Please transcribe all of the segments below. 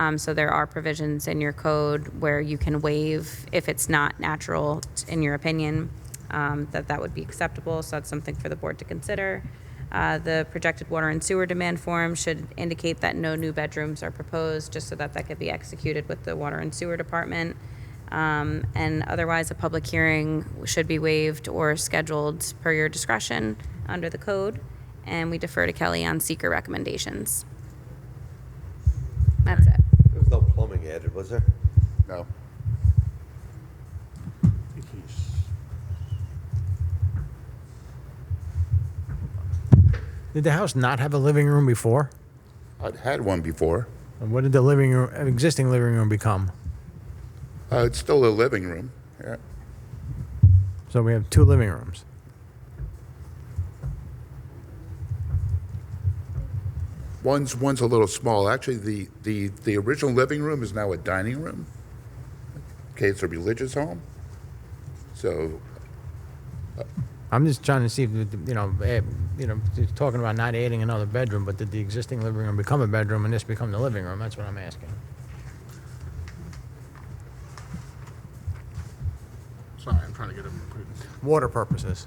Um, so there are provisions in your code where you can waive if it's not natural, in your opinion, um, that that would be acceptable. So that's something for the board to consider. Uh, the projected water and sewer demand form should indicate that no new bedrooms are proposed, just so that that could be executed with the water and sewer department. Um, and otherwise, a public hearing should be waived or scheduled per your discretion under the code. And we defer to Kelly on seeker recommendations. That's it. There was no plumbing added, was there? No. Did the house not have a living room before? I'd had one before. And what did the living room, an existing living room become? Uh, it's still a living room. Yeah. So we have two living rooms. One's one's a little small. Actually, the, the, the original living room is now a dining room. Okay, it's a religious home. So I'm just trying to see, if, you know, eh, you know, just talking about not adding another bedroom, but did the existing living room become a bedroom and this become the living room? That's what I'm asking. Sorry, I'm trying to get him. Water purposes.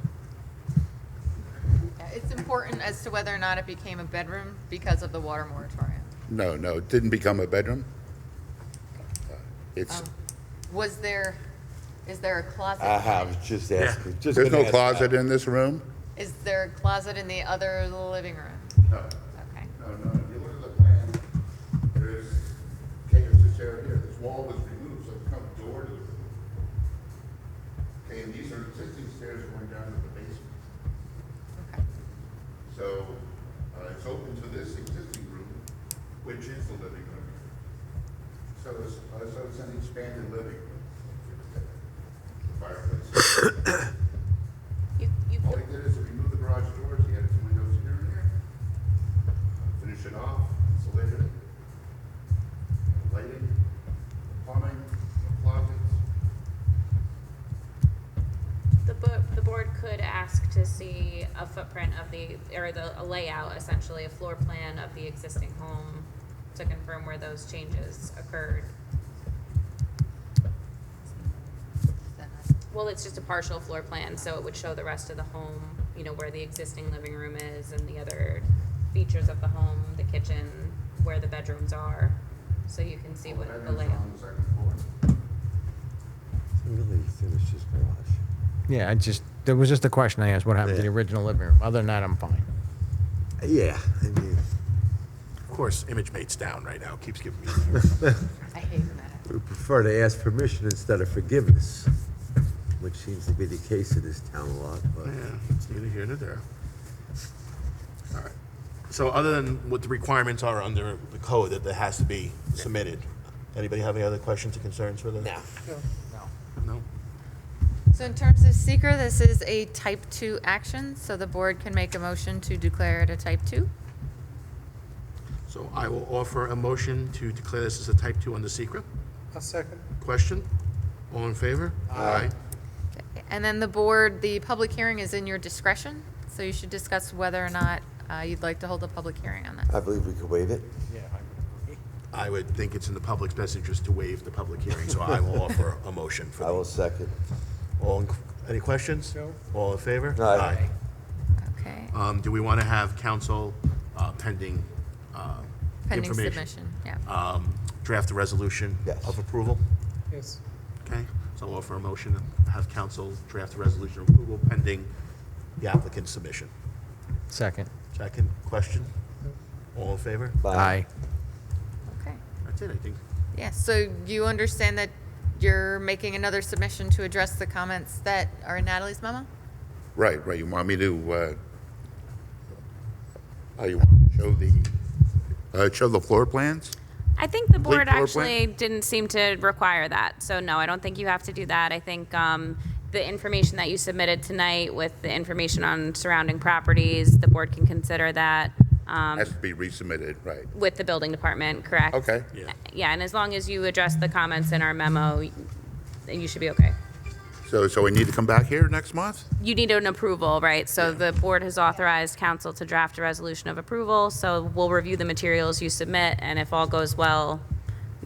Yeah, It's important as to whether or not it became a bedroom because of the water moratorium. no, no, it didn't become a bedroom. Uh, It's Was there, is there a closet? I have, just asking. just there's gonna no ask closet that. in this room. Is there a closet in the other living room? No, Okay. no, no. If you look at the plan, there's caves this area here. This wall was removed, so it comes door to the room. Okay, and these are existing stairs going down to the basement. okay. So uh, it's open to this existing room, which is the living room. So it's, uh, so it's an expanded living room. Fireplace. You, you, All he did is remove the garage doors, he added some windows here and there. Finish it off, insulated it. Lighting, plumbing, closets. The bo- the board could ask to see a footprint of the, or the, a layout essentially, a floor plan of the existing home to confirm where those changes occurred. Well, it's just a partial floor plan, so it would show the rest of the home, you know, where the existing living room is and the other features of the home, the kitchen, where the bedrooms are, so you can see what the bedrooms are layout. on the second floor. Really, he finished his garage. Yeah, I just, there was just a question I asked, what happened to the Yeah. original living room? Other than that, I'm fine. Yeah, I mean, Of course, ImageMate's down right now, keeps giving me. I hate when that. happens. we prefer to ask permission instead of forgiveness, which seems to be the case in this town a lot, but. Yeah, it's neither here nor there. All right. So other than what the requirements are under the code that that has to be submitted, anybody have any other questions or concerns for the? No. No? So in terms of seeker, this is a type two action, so the board can make a motion to declare it a type two. So I will offer a motion to declare this as a type two under secret. A second. Question? All in favor? Aye. And then the board, the public hearing is in your discretion, so you should discuss whether or not uh, you'd like to hold a public hearing on that. I believe we could waive it. I would think it's in the public's best interest to waive the public hearing, so I will offer a motion for I will that. second. All, in- any questions? No. All in favor? Aye. Okay, Um, do we want to have council uh, pending, uh, pending information? submission, yeah. Um, draft a resolution Yes. of approval? Yes. Okay, so I'll offer a motion to have council draft a resolution of approval pending the applicant's submission. Second. Second, question? All in favor? Aye. Okay. That's it, I think. Yeah, so you understand that you're making another submission to address the comments that are in Natalie's memo? Right, right, you want me to, uh, oh, you want me to show the, uh, show the floor plans? I think the Complete board floor actually didn't seem to require that. So no, I don't think you have to do that. I think um, the information that you submitted tonight with the information on surrounding properties, the board can consider that um, Has to be resubmitted, right. with the building department, correct? Okay. Yeah. Yeah, and as long as you address the comments in our memo, you should be okay. So, so we need to come back here next month? You need an approval, right? So the board has authorized council to draft a resolution of approval. So we'll review the materials you submit, and if all goes well,